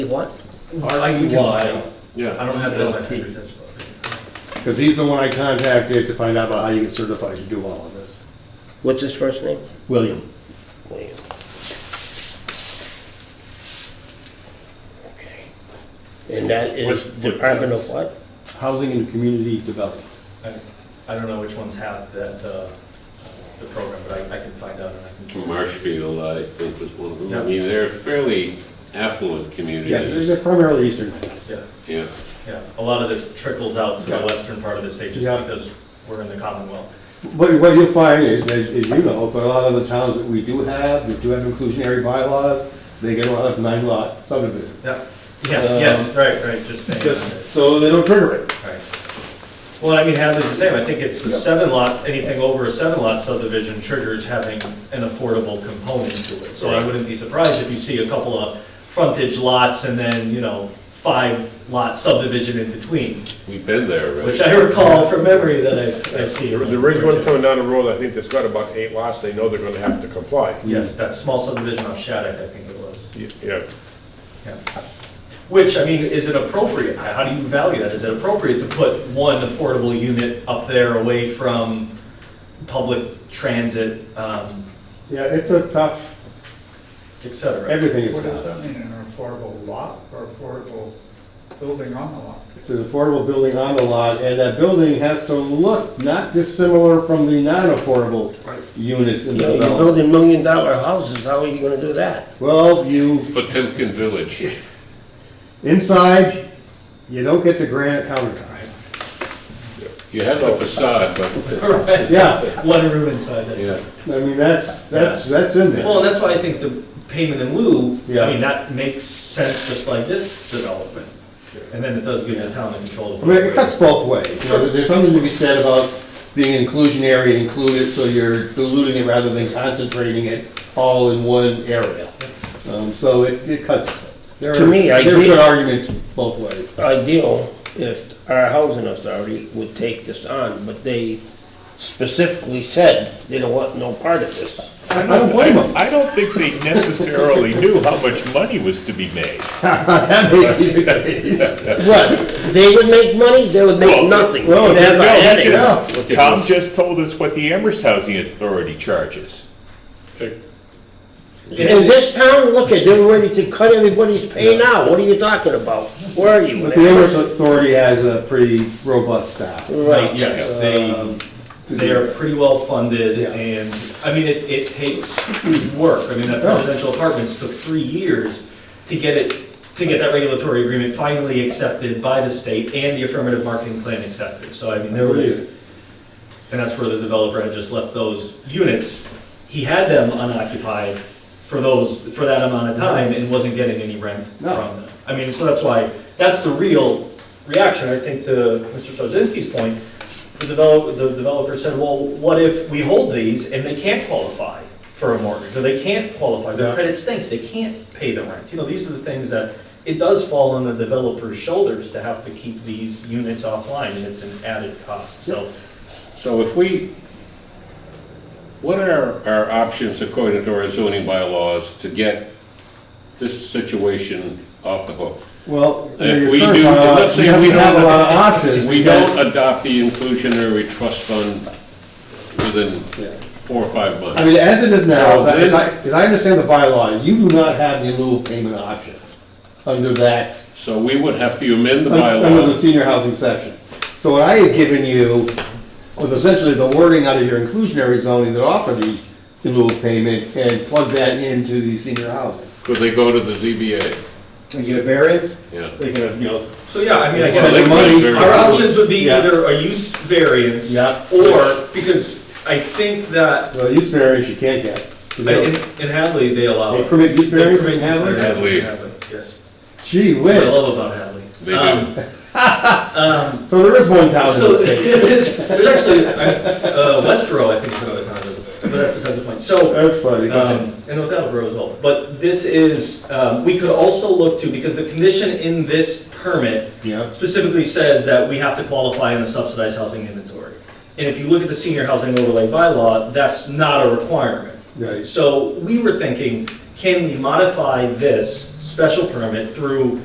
What? RQY. Yeah, I don't have that on my LT. fingertips. Because he's the one I contacted to find out about how you get certified to do all of this. What's his first name? William. William. Okay. And that is What- what- Department of what? Housing and Community Development. I- I don't know which ones have that, uh, the program, but I I can find out and I can. Marshfield, I think, was one of them. Yeah. I mean, they're fairly affluent Yes, communities. they're primarily Eastern Mass. Yeah, Yeah, yeah. A lot of this trickles out to the Yeah. western part of the state just Yeah. because we're in the Commonwealth. But what you'll find, is, as as you know, for a lot of the towns that we do have, that do have inclusionary bylaws, they get a lot of nine lot subdivisions. Yeah. Yeah, yes, right, right, just saying. Just so they don't trigger it. Right. Well, I mean, half is the same. I think it's the Yeah. seven lot, anything over a seven lot subdivision triggers having an affordable component to it. So I Right. wouldn't be surprised if you see a couple of frontage lots and then, you know, five lot subdivision in between, we've been there, which right? I recall from memory that I, I see. The the ridge one coming down the road, I think there's got about eight lots, they know they're gonna have to comply. Yes, that small subdivision off Shattuck, I think it was. Y- Yeah, Yeah. Which, I mean, is it appropriate? How how do you value that? Is it appropriate to put one affordable unit up there away from public transit, um, Yeah, it's a tough, et cetera? everything is What does tough. that mean, an affordable lot or affordable building on the lot? It's an affordable building on the lot, and that building has to look not dissimilar from the non-affordable units in You the know, You're development. building million dollar houses, how are you gonna do that? Well, you Potemkin Village. Inside, you don't get the granite countertops. You have the facade, but, Right. Yeah, One room inside that. yeah. I mean, that's, that's, that's in Well, there. and that's why I think the payment in lieu, Yeah. I mean, that makes sense just like this development. And then it does give the town the control I of. mean, it cuts both ways. You know, there's something to be said about being inclusionary and included, so you're diluting it rather than concentrating it all in one area. Um, so it, it cuts. There To are- me, I There are did- good arguments both ways. Ideal if our housing authority would take this on, but they specifically said they don't want no part of this. I I don't blame them. I don't think they necessarily knew how much money was to be made. What, they would make money, they would make Well, nothing, well, they'd have a No, he headache. just- Look at Tom this. just told us what the Amherst Housing Authority charges. In this town, look at, they're ready to cut everybody's pay now, what are you talking about? Where are you? But the Amherst Authority has a pretty robust staff. Right. Yes, they. Um, to They are pretty well funded Yeah. and, I mean, it, it takes work. I mean, that Yeah. residential apartments took three years to get it, to get that regulatory agreement finally accepted by the state and the affirmative marketing plan accepted. So I mean, there There it was, is. and that's where the developer had just left those units. He had them unoccupied for those, for that amount of time and wasn't getting any rent No. from them. I mean, so that's why, that's the real reaction, I think, to Mr. Sarzinski's point. The develop, the developer said, well, what if we hold these and they can't qualify for a mortgage, or they can't qualify, their Yeah. credit stinks, they can't pay the rent? You know, these are the things that, it does fall on the developer's shoulders to have to keep these units offline, and it's an added cost, so. So if we, what are our options according to our zoning bylaws to get this situation off the hook? Well, If your we current do- bylaws, let's say you have we to have a don't- lot of options. We because- don't adopt the inclusionary trust fund within Yeah. four or five months. I mean, as it is now, as So I, as I- then- as I understand the bylaw, you do not have the in lieu of payment option under that, So we would have to amend the un- under the bylaw. senior housing section. So what I had given you was essentially the wording out of your inclusionary zoning that offer the in lieu of payment and plug that into the senior housing. Could they go to the ZBA? And get a variance, Yeah. they can, you know. So, yeah, I mean, I Well, they guess could money- very our well. options would be Yeah. either a use variance. Yeah. Or, because I think that, Well, use variance you can't get. 'cause they in don't- in Hadley, they allow. They it. permit use They variance permit in use Hadley? variances in Hadley. Hadley, Yes. Gee What I whiz. love about Hadley. They Um, do. Um, So there is one town in so, the state. there's actually, uh, Westboro, I think, is another town, that does it, but that's besides the point. So, That's funny. Go ahead. Um, And without Roseville, but this is, um, we could also look to, because the condition in this permit Yeah. specifically says that we have to qualify in the subsidized housing inventory. And if you look at the senior housing overlay bylaw, that's not a requirement. Right. So we were thinking, can we modify this special permit through